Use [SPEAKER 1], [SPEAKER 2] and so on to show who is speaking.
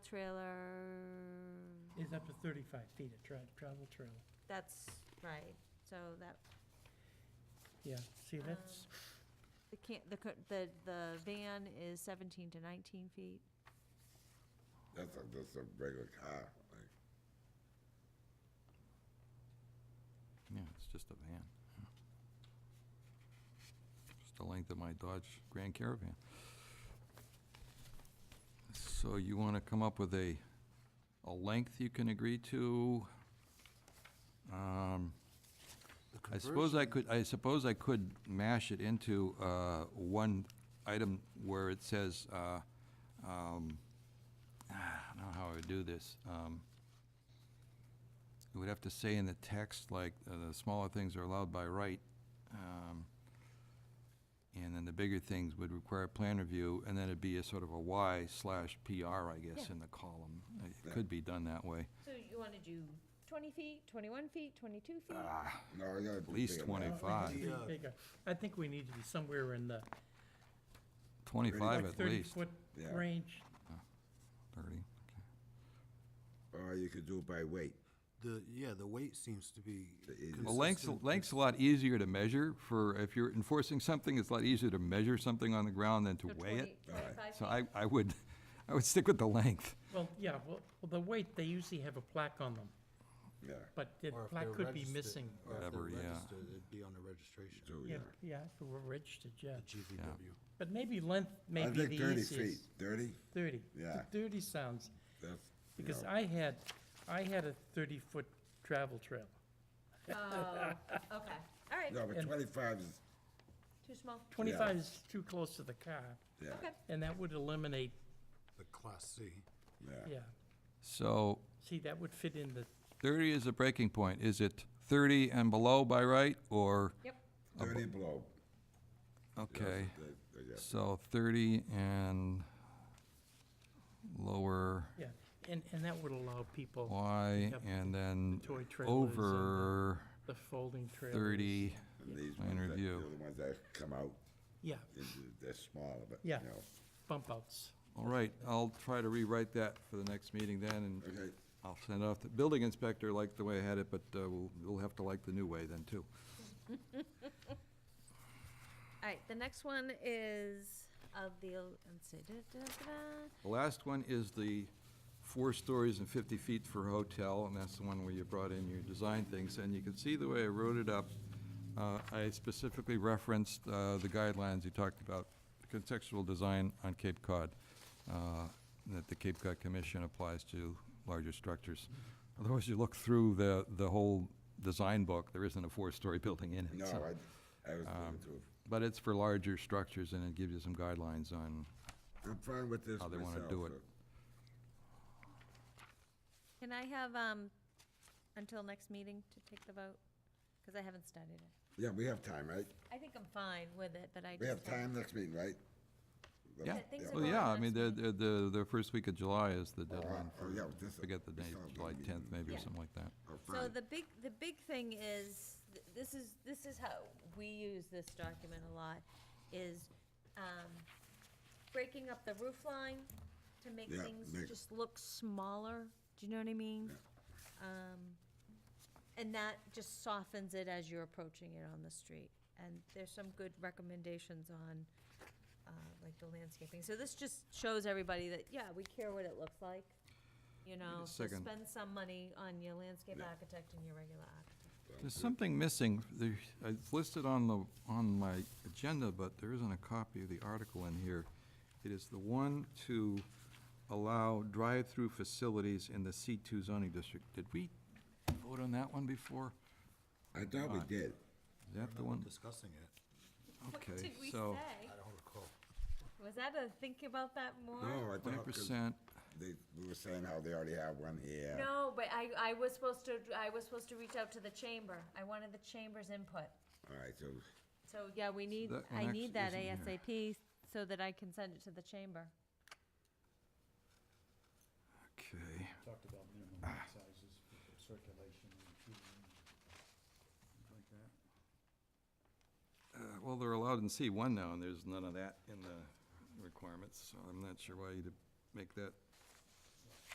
[SPEAKER 1] trailer,
[SPEAKER 2] Is up to 35 feet of tra- travel trail.
[SPEAKER 1] that's right, so that,
[SPEAKER 2] Yeah, see, that's,
[SPEAKER 1] the can, the, co- the, the van is seventeen to nineteen feet.
[SPEAKER 3] That's a, that's a regular car, like,
[SPEAKER 4] Yeah, it's just a van. Just the length of my Dodge Grand Caravan. So you want to come up with a, a length you can agree to? Um, I suppose I could, I suppose I could mash it into uh, one item where it says, uh, um, I don't know how I would do this. Um, It would have to say in the text, like, uh, the smaller things are allowed by right, um, and then the bigger things would require plan review, and then it'd be a sort of a Y slash PR, I guess, in the column. It could be done that way.
[SPEAKER 1] So you wanna do twenty feet, twenty-one feet, twenty-two feet?
[SPEAKER 4] Uh,
[SPEAKER 3] no, I gotta. At
[SPEAKER 4] least
[SPEAKER 2] uh,
[SPEAKER 4] 25.
[SPEAKER 2] pretty big. I think we need to be somewhere in the
[SPEAKER 4] Twenty-five
[SPEAKER 2] like
[SPEAKER 4] at least,
[SPEAKER 2] 30-foot
[SPEAKER 3] Yeah.
[SPEAKER 2] range.
[SPEAKER 4] thirty, okay.
[SPEAKER 3] Or you could do it by weight.
[SPEAKER 5] The, yeah, the weight seems to be
[SPEAKER 3] is-
[SPEAKER 5] consistent.
[SPEAKER 4] Well, length's, length's a lot easier to measure for, if you're enforcing something, it's a lot easier to measure something on the ground than to
[SPEAKER 1] So
[SPEAKER 4] weigh
[SPEAKER 1] 20
[SPEAKER 4] it.
[SPEAKER 1] 25
[SPEAKER 4] So
[SPEAKER 1] feet?
[SPEAKER 4] I, I would, I would stick with the length.
[SPEAKER 2] Well, yeah, well, well, the weight, they usually have a plaque on them,
[SPEAKER 3] Yeah,
[SPEAKER 2] but the
[SPEAKER 5] Or if
[SPEAKER 2] plaque
[SPEAKER 5] they're
[SPEAKER 2] could be
[SPEAKER 5] registered-
[SPEAKER 2] missing.
[SPEAKER 5] Or if they're
[SPEAKER 4] Whatever, yeah.
[SPEAKER 5] registered, it'd be on the registration,
[SPEAKER 4] Oh,
[SPEAKER 3] so, yeah.
[SPEAKER 2] Yeah, yeah, if it were registered, yeah.
[SPEAKER 5] the GVW.
[SPEAKER 2] But maybe length may
[SPEAKER 3] I
[SPEAKER 2] be
[SPEAKER 3] think
[SPEAKER 2] the
[SPEAKER 3] thirty feet,
[SPEAKER 2] easiest.
[SPEAKER 3] thirty,
[SPEAKER 2] 30.
[SPEAKER 3] Yeah.
[SPEAKER 2] 30 sounds,
[SPEAKER 3] that's, you
[SPEAKER 2] because
[SPEAKER 3] know,
[SPEAKER 2] I had, I had a 30-foot travel trail.
[SPEAKER 1] Okay, all right,
[SPEAKER 3] No, but twenty-five is,
[SPEAKER 1] too small,
[SPEAKER 2] 25 is too close to the car,
[SPEAKER 3] yeah,
[SPEAKER 1] okay.
[SPEAKER 2] and that would eliminate,
[SPEAKER 5] The Class C.
[SPEAKER 3] yeah,
[SPEAKER 2] yeah.
[SPEAKER 4] So
[SPEAKER 2] See, that would fit in the,
[SPEAKER 4] thirty is a breaking point. Is it thirty and below by right, or?
[SPEAKER 1] Yep.
[SPEAKER 3] thirty below. That's
[SPEAKER 4] Okay,
[SPEAKER 3] the- the- yeah.
[SPEAKER 4] so thirty and lower
[SPEAKER 2] yeah, and, and that would allow people. to
[SPEAKER 4] Y,
[SPEAKER 2] have
[SPEAKER 4] and then
[SPEAKER 2] toy trailers and the-
[SPEAKER 4] over
[SPEAKER 2] The folding trailers.
[SPEAKER 4] thirty.
[SPEAKER 3] And these
[SPEAKER 4] Plan
[SPEAKER 3] ones that-
[SPEAKER 4] review.
[SPEAKER 3] they're The ones that come out,
[SPEAKER 2] Yeah,
[SPEAKER 3] into- they're smaller, but, you
[SPEAKER 2] Yeah.
[SPEAKER 3] know,
[SPEAKER 2] bump outs.
[SPEAKER 4] All right, I'll try to rewrite that for the next meeting then, and
[SPEAKER 3] okay,
[SPEAKER 4] I'll send it off. The building inspector liked the way I had it, but uh, we'll, we'll have to like the new way then, too.
[SPEAKER 1] All right, the next one is of the, let's see, da, da, da, da.
[SPEAKER 4] The last one is the four stories and 50 feet for hotel, and that's the one where you brought in your design things. And you can see the way I wrote it up, uh, I specifically referenced uh, the guidelines you talked about, contextual design on Cape Cod, uh, that the Cape Cod Commission applies to larger structures. Otherwise, you look through the, the whole design book, there isn't a four-story building in it.
[SPEAKER 3] no,
[SPEAKER 4] so-
[SPEAKER 3] I, I was
[SPEAKER 4] Um,
[SPEAKER 3] looking through,
[SPEAKER 4] But it's for larger structures, and it gives you some guidelines on,
[SPEAKER 3] I'm fine with this
[SPEAKER 4] how
[SPEAKER 3] myself.
[SPEAKER 4] they wanna do it.
[SPEAKER 3] so-
[SPEAKER 1] Can I have, um, until next meeting to take the vote? Because I haven't studied it.
[SPEAKER 3] Yeah, we have time, right?
[SPEAKER 1] I think I'm fine with it, that I just.
[SPEAKER 3] We have time next meeting, right?
[SPEAKER 4] Yeah,
[SPEAKER 1] things are
[SPEAKER 4] well,
[SPEAKER 1] going
[SPEAKER 4] yeah,
[SPEAKER 1] on
[SPEAKER 4] I mean, the,
[SPEAKER 1] next
[SPEAKER 4] the, the the first week of July is the
[SPEAKER 3] Oh, oh,
[SPEAKER 4] deadline. for-
[SPEAKER 3] yeah, this-
[SPEAKER 4] Forget the
[SPEAKER 3] this
[SPEAKER 4] date,
[SPEAKER 3] sounds like
[SPEAKER 4] July
[SPEAKER 3] we-
[SPEAKER 4] 10th maybe, or
[SPEAKER 1] Yeah.
[SPEAKER 4] something like that.
[SPEAKER 3] Oh,
[SPEAKER 1] So
[SPEAKER 3] fine.
[SPEAKER 1] the big, the big thing is, th- this is, this is how we use this document a lot, is, um, breaking up the roof line to make
[SPEAKER 3] Yeah,
[SPEAKER 1] things
[SPEAKER 3] make-
[SPEAKER 1] just look smaller, do you know what I mean? Um, and that just softens it as you're approaching it on the street. And there's some good recommendations on, uh, like the landscaping. So this just shows everybody that, yeah, we care what it looks like, you know, so
[SPEAKER 4] second.
[SPEAKER 1] spend some money on your landscape architect and your regular architect.
[SPEAKER 4] There's something missing, there, it's listed on the, on my agenda, but there isn't a copy of the article in here. It is the one to allow drive-through facilities in the C2 zoning district. Did we vote on that one before?
[SPEAKER 3] I thought we did.
[SPEAKER 4] Is that the
[SPEAKER 5] I'm
[SPEAKER 4] one?
[SPEAKER 5] discussing it,
[SPEAKER 4] Okay, so
[SPEAKER 5] I don't recall.
[SPEAKER 1] Was that a think about that more?
[SPEAKER 3] No, I thought. 'cause
[SPEAKER 4] 20%,
[SPEAKER 3] They, we were saying how they already have one here.
[SPEAKER 1] No, but I, I was supposed to, I was supposed to reach out to the chamber. I wanted the chamber's input.
[SPEAKER 3] All right, so,
[SPEAKER 1] So, yeah, we need,
[SPEAKER 4] that one
[SPEAKER 1] I need that
[SPEAKER 4] actually isn't
[SPEAKER 1] ASAP so that I can send it to the chamber.
[SPEAKER 4] okay.
[SPEAKER 6] Talked about minimum lot sizes for circulation and feeding and things like that.
[SPEAKER 4] Uh, Well, they're allowed in C1 now, and there's none of that in the requirements, so I'm not sure why you'd make that